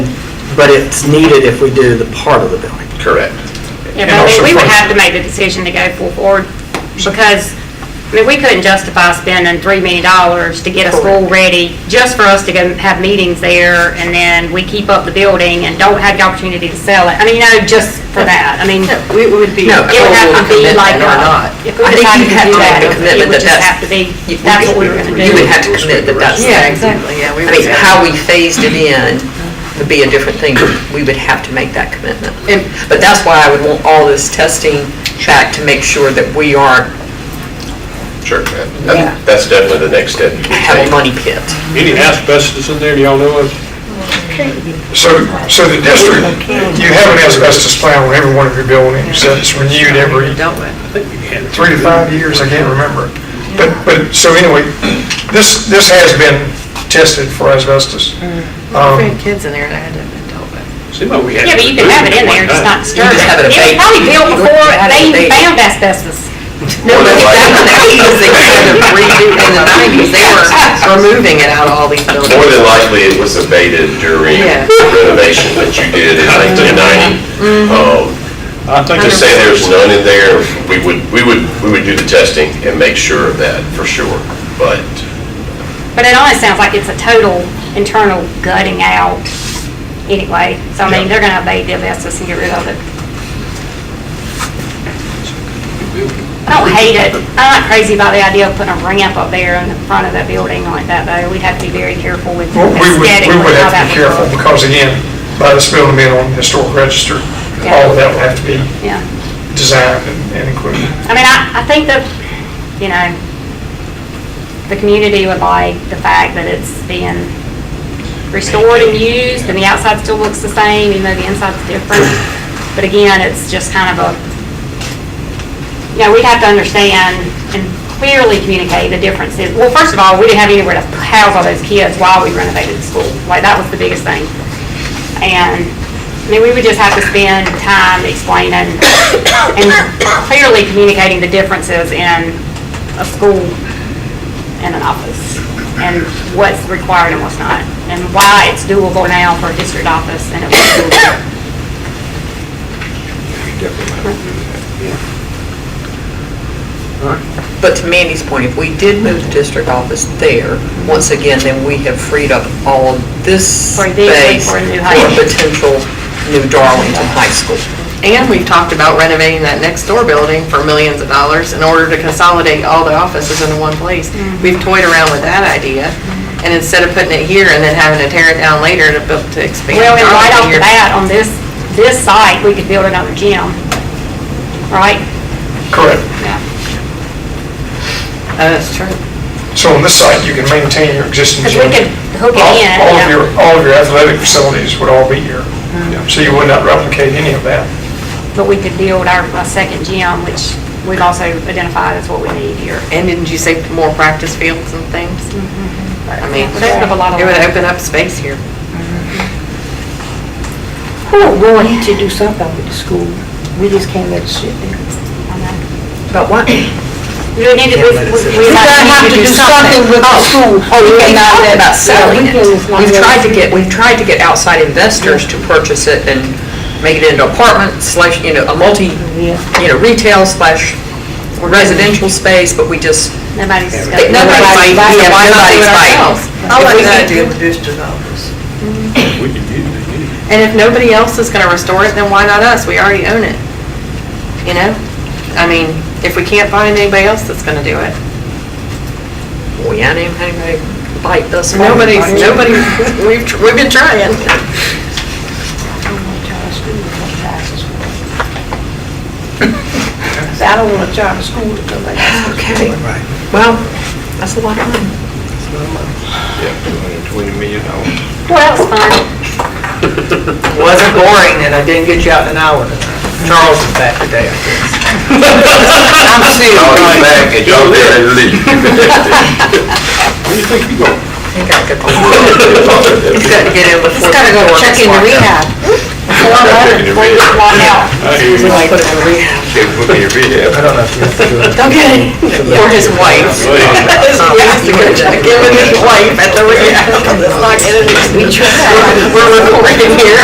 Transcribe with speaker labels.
Speaker 1: but it's needed if we do the part of the building.
Speaker 2: Correct.
Speaker 1: And
Speaker 3: Yeah, but I mean,
Speaker 1: also
Speaker 3: we would
Speaker 1: price.
Speaker 3: have to make the decision to go full forward because, I mean, we couldn't justify spending $3 million to get a school ready just for us to go have meetings there and then we keep up the building and don't have the opportunity to sell it. I mean, you know, just for that. I mean, it
Speaker 4: We would be.
Speaker 5: No, a
Speaker 3: would
Speaker 6: oh,
Speaker 3: have to
Speaker 5: full
Speaker 3: be like,
Speaker 5: commitment or
Speaker 3: a-
Speaker 5: not.
Speaker 3: if we
Speaker 5: I
Speaker 3: decided
Speaker 5: think
Speaker 3: to do
Speaker 5: you have to
Speaker 3: that,
Speaker 5: make a
Speaker 3: it
Speaker 5: commitment
Speaker 3: would
Speaker 5: that
Speaker 3: just
Speaker 5: that's-
Speaker 3: have to be,
Speaker 5: you-
Speaker 3: that's what we were going to do.
Speaker 5: You would have to commit that that's,
Speaker 4: Yeah, exactly, yeah. we
Speaker 5: I
Speaker 4: would
Speaker 5: mean,
Speaker 4: have-
Speaker 5: how we phased it in would be a different thing. We would have to make that commitment. And, but that's why I would want all this testing back to make sure that we aren't
Speaker 2: Sure. That- That's definitely the next step you would
Speaker 5: have a
Speaker 2: take.
Speaker 5: money pit.
Speaker 7: Any asbestos in there, do y'all know of?
Speaker 8: So, so the district, you have an asbestos plan on every one of your buildings that's renewed every
Speaker 4: Dealt with.
Speaker 8: three to five years, I can't remember. But, but, so anyway, this, this has been tested for asbestos.
Speaker 3: Mm.
Speaker 4: We
Speaker 8: Um,
Speaker 4: had kids in there and I had to have been dealt with.
Speaker 7: Seems like we had.
Speaker 3: Yeah, but you can have it in there, just not
Speaker 5: You
Speaker 3: disturb
Speaker 5: just
Speaker 3: it.
Speaker 5: have it
Speaker 3: It was
Speaker 5: abated.
Speaker 3: probably built
Speaker 5: You
Speaker 3: before
Speaker 5: had it
Speaker 3: they
Speaker 5: abated.
Speaker 3: found asbestos.
Speaker 5: No, but back in the eighties, they started redoing, in the nineties, they were removing it out of all these buildings.
Speaker 2: More than likely, it was abated during
Speaker 4: Yeah.
Speaker 2: the renovation that you did in 1990. Um,
Speaker 7: I think
Speaker 2: Just
Speaker 7: it's,
Speaker 2: say there's none in there, we would, we would, we would do the testing and make sure of that, for sure. But
Speaker 3: But it almost sounds like it's a total internal gutting out anyway. So I mean, they're gonna abate the asbestos and get rid of it. I don't hate it. I'm not crazy about the idea of putting a ramp up there in the front of that building like that though. We'd have to be very careful with
Speaker 8: well, We would,
Speaker 3: aesthetically
Speaker 8: we would
Speaker 3: how that
Speaker 8: have to be
Speaker 3: would
Speaker 8: careful
Speaker 3: look.
Speaker 8: because again, by this building being on the historic register, all of that would have to be
Speaker 3: Yeah.
Speaker 8: designed and- and included.
Speaker 3: I mean, I, I think that, you know, the community would like the fact that it's being restored and used, and the outside still looks the same, even though the inside's different. But again, it's just kind of a, you know, we'd have to understand and clearly communicate the differences. Well, first of all, we didn't have anywhere to house all those kids while we renovated the school. Like, that was the biggest thing. And, I mean, we would just have to spend time explaining and clearly communicating the differences in a school and an office, and what's required and what's not, and why it's doable now for a district office and it wasn't doable
Speaker 5: But to Mandy's point, if we did move the district office there, once again, then we have freed up all of this
Speaker 3: For this and
Speaker 5: space
Speaker 3: for
Speaker 5: for
Speaker 3: new high school.
Speaker 5: potential new Darlington High School.
Speaker 4: And we've talked about renovating that next door building for millions of dollars in order to consolidate all the offices into one place. Mm-hmm. We've toyed around with that idea, and instead of putting it here and then having to tear it down later to build, to expand.
Speaker 3: Well, and right off the
Speaker 4: Darlington, you're-
Speaker 3: bat, on this, this site, we could build another gym, right?
Speaker 8: Correct.
Speaker 3: Yeah.
Speaker 4: Oh, That's true.
Speaker 8: So on this site, you can maintain your existing
Speaker 3: Because we
Speaker 8: gym.
Speaker 3: could hook it
Speaker 8: All-
Speaker 3: in,
Speaker 8: All of
Speaker 3: yeah.
Speaker 8: your, all of your athletic facilities would all be here. So you would not replicate any of that.
Speaker 3: But we could build our, a second gym, which we've also identified as what we need here.
Speaker 4: And didn't you say more practice fields and things? I mean,
Speaker 3: It would open up Mm-hmm. a lot of
Speaker 4: it would
Speaker 3: land.
Speaker 4: open up space here.
Speaker 9: We're willing to do something with the school. We just can't let it sit there. But what? You
Speaker 3: We need to, we, we- we.
Speaker 9: gotta have to do something with the school.
Speaker 5: Oh, we
Speaker 9: can
Speaker 5: cannot
Speaker 9: talk
Speaker 5: about selling it.
Speaker 9: Yeah, we can, it's not
Speaker 5: We've
Speaker 9: really-
Speaker 5: tried to get, we've tried to get outside investors to purchase it and make it into apartment slash, you know, a multi,
Speaker 9: Yeah.
Speaker 5: you know, retail slash residential space, but we just,
Speaker 3: Nobody's
Speaker 5: they-
Speaker 3: discussing.
Speaker 5: nobody's
Speaker 9: Nobody's
Speaker 5: biting,
Speaker 9: biting.
Speaker 5: yeah, nobody's
Speaker 4: Nobody's
Speaker 5: biting.
Speaker 4: biting.
Speaker 5: If we
Speaker 4: Nobody's
Speaker 5: could do-
Speaker 7: we could use it, yeah.
Speaker 4: And if nobody else is gonna restore it, then why not us? We already own it. You know? I mean, if we can't find anybody else that's gonna do it.
Speaker 5: We hadn't even had anybody bite thus far.
Speaker 4: Nobody's, nobody, we've, tr- we've been trying.
Speaker 9: I don't wanna charter school to come back to school. I said, I don't want to charter school to come back to school.
Speaker 5: Okay, well, that's a lot of money.
Speaker 3: Well, that was fun.
Speaker 6: Wasn't boring, and I didn't get you out in an hour. Charles is back today, I guess.
Speaker 5: I'm assuming.
Speaker 2: I'll be back and y'all there and leave.
Speaker 5: He got good. He's got to get in before. He's got to go check into rehab.
Speaker 3: Four months, we walked out.
Speaker 5: Put him in rehab.
Speaker 8: I don't know if you have to do it.
Speaker 5: Okay. Or his wife. His wife, you gotta check in with his wife at the rehab. Let's not get it. We're recording here.